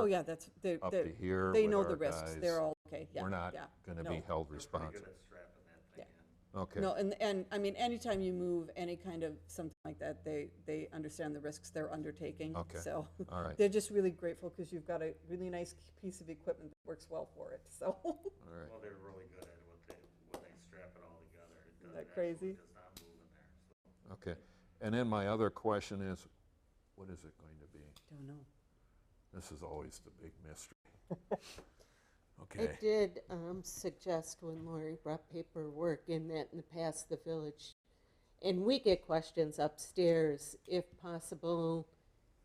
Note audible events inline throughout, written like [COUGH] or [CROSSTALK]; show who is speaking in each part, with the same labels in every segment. Speaker 1: Oh, yeah, that's, they're,
Speaker 2: up
Speaker 1: they're-
Speaker 2: to here
Speaker 1: they
Speaker 2: with
Speaker 1: know
Speaker 2: our
Speaker 1: the risks.
Speaker 2: guys.
Speaker 1: They're all, okay, yeah, yeah.
Speaker 2: We're not going to be
Speaker 1: no.
Speaker 2: held responsible.
Speaker 1: Yeah.
Speaker 2: Okay,
Speaker 1: No, and, and, I mean, anytime you move any kind of something like that, they, they understand the risks they're undertaking.
Speaker 2: Okay.
Speaker 1: So [LAUGHS]
Speaker 2: all right,
Speaker 1: they're just really grateful because you've got a really nice piece of equipment that works well for it, so. [LAUGHS]
Speaker 2: all right.
Speaker 3: Well, they're really good at what they, when they strap it all together. It
Speaker 1: Isn't
Speaker 3: does-
Speaker 1: that
Speaker 3: it actually
Speaker 1: crazy?
Speaker 3: Does not move in there, so.
Speaker 2: Okay, and then my other question is, what is it going to be?
Speaker 1: Don't know.
Speaker 2: This is always the big
Speaker 1: [LAUGHS]
Speaker 2: mystery.
Speaker 4: I
Speaker 2: Okay,
Speaker 4: did um, suggest when Lori brought paperwork in that in the past, the village, and we get questions upstairs if possible,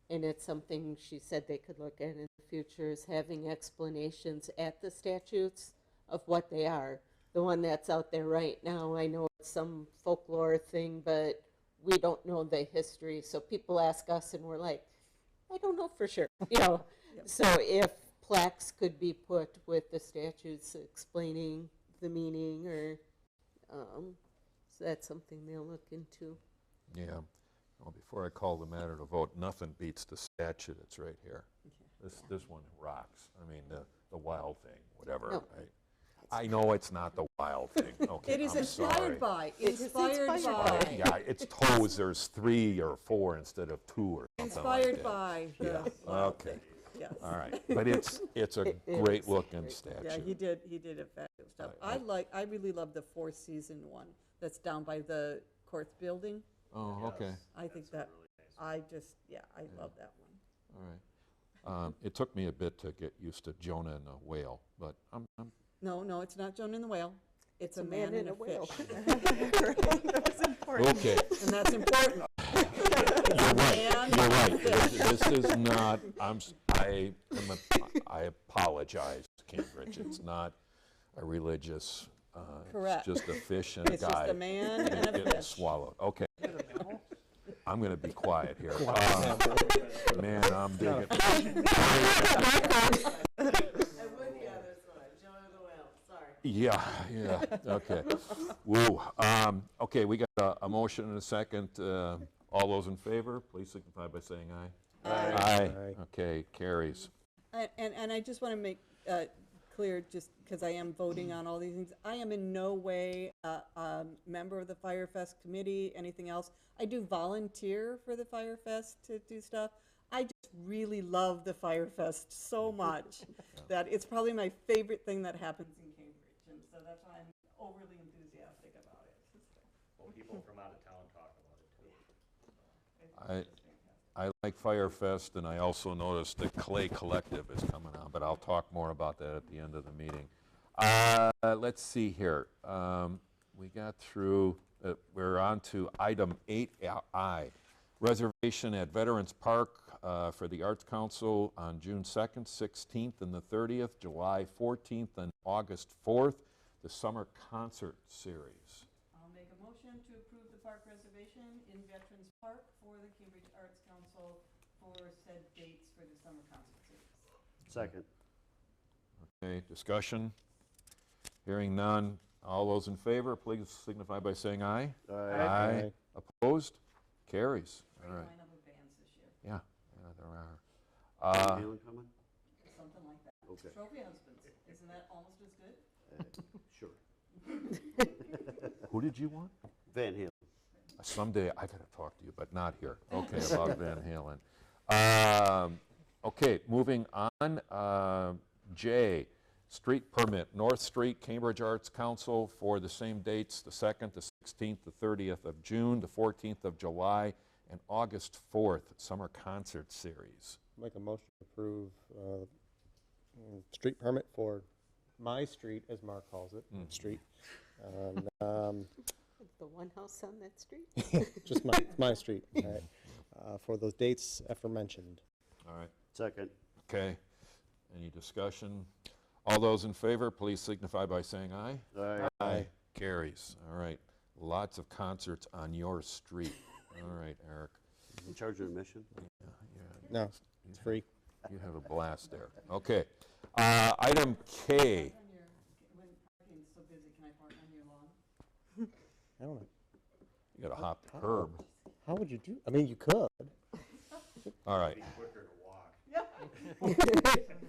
Speaker 4: and it's something she said they could look at in the future, is having explanations at the statutes of what they are. The one that's out there right now, I know it's some folklore thing, but we don't know the history, so people ask us and we're like, I don't know for sure, you know. So if plaques could be put with the statutes explaining the meaning or, um, so that's something they'll look into.
Speaker 2: yeah. Well, before I call the matter to vote, nothing beats the statue that's right here. This, this one rocks. I mean, the, the wild thing, whatever.
Speaker 4: No.
Speaker 2: I- I know it's not the wild thing.
Speaker 1: [LAUGHS]
Speaker 2: Okay,
Speaker 1: It is
Speaker 2: I'm sorry.
Speaker 1: inspired by,
Speaker 4: It's
Speaker 1: inspired
Speaker 4: inspired
Speaker 2: Oh,
Speaker 1: by,
Speaker 2: Yeah, it's toes, there's three or four instead of two or something like
Speaker 1: inspired
Speaker 2: that.
Speaker 1: by.
Speaker 2: Yeah,
Speaker 1: the wild
Speaker 2: okay,
Speaker 1: thing, Yes.
Speaker 2: all right. But it's,
Speaker 1: [LAUGHS]
Speaker 2: it's a
Speaker 4: It is
Speaker 2: great looking
Speaker 1: Yeah, he
Speaker 2: statue.
Speaker 1: did, he did a fabulous job. I like, I really love the four-season one that's down by the Court Building.
Speaker 2: Oh, okay,
Speaker 1: I think that, I just, yeah, I love that one.
Speaker 2: all right. Um, It took me a bit to get used to Jonah and the whale, but I'm, I'm,
Speaker 1: No, no, it's not Joan and the Whale. It's a man and a
Speaker 4: whale.
Speaker 1: fish. [LAUGHS]
Speaker 2: okay,
Speaker 1: And that's important.
Speaker 2: you're
Speaker 1: [LAUGHS]
Speaker 2: right,
Speaker 1: And
Speaker 2: you're right. [LAUGHS] This this is not, I'm, s- I, am a- I apologize, Cambridge, it's not a religious, uh,
Speaker 1: Correct.
Speaker 2: it's just a fish and a
Speaker 1: It's
Speaker 2: guy.
Speaker 1: just a man and a
Speaker 2: Getting
Speaker 1: fish.
Speaker 2: swallowed, okay. I'm gonna be quiet here. Uh, Man, I'm digging.
Speaker 4: I would the other side, John of the Well, sorry.
Speaker 2: Yeah, yeah, okay. Woo. Um, okay, we got a, a motion and a second. Uh, all those in favor, please signify by saying aye. Aye. Aye. Okay, carries.
Speaker 1: And, and- and I just want to make uh, clear, just because I am voting on all these things, I am in no way a, a member of the Firefest committee, anything else. I do volunteer for the Firefest to do stuff. I just really love the Firefest so much that it's probably my favorite thing that happens in Cambridge. And so that's why I'm overly enthusiastic about it. [LAUGHS]
Speaker 3: Well, people from out of town talk about it too.
Speaker 2: I, I like Firefest, and I also noticed the Clay Collective is coming on, but I'll talk more about that at the end of the meeting. Uh, Let's see here. Um, We got through, uh, we're on to item 8I, reservation at Veterans Park uh, for the Arts Council on June 2nd, 16th, and the 30th, July 14th, and August 4th, the Summer Concert Series.
Speaker 1: I'll make a motion to approve the park reservation in Veterans Park for the Cambridge Arts Council for said dates for the summer concert series.
Speaker 3: Second.
Speaker 2: Okay, discussion? Hearing none. All those in favor, please signify by saying aye. Aye. Opposed? Carries. All right.
Speaker 1: Line up of bands this year,
Speaker 2: Yeah, yeah, there are. Uh,
Speaker 3: coming?
Speaker 1: something like that.
Speaker 3: Okay.
Speaker 1: Trophy husbands, isn't that almost as good?
Speaker 3: Sure.
Speaker 2: Who did you want?
Speaker 3: Van Halen.
Speaker 2: Someday I gotta talk to you, but not here. Okay, about Van Halen. Um, okay, moving on. Uh, J, street permit, North Street, Cambridge Arts Council for the same dates, the 2nd, the 16th, the 30th of June, the 14th of July, and August 4th, Summer Concert Series.
Speaker 5: Make a motion to approve uh, mm, street permit for my street, as Mark calls it, street. And, um, [LAUGHS]
Speaker 4: The one house on that street?
Speaker 5: Just my, it's my street, all right, uh, for those dates aforementioned.
Speaker 2: All right.
Speaker 3: Second.
Speaker 2: Okay. Any discussion? All those in favor, please signify by saying aye.
Speaker 3: Aye.
Speaker 2: Aye. Carries. All right. Lots of concerts on your street. All right, Eric.
Speaker 3: Charge of admission?
Speaker 2: Yeah,
Speaker 5: No, it's free.
Speaker 2: You have a blast there. Okay. Uh, Item K.
Speaker 1: On your, when parking's so busy, can I park on your lawn?
Speaker 5: I don't know.
Speaker 2: You got to hop the curb.
Speaker 5: How would you do, I mean, you could.
Speaker 2: All right.
Speaker 3: Quicker to walk.
Speaker 1: Yeah.
Speaker 4: fine.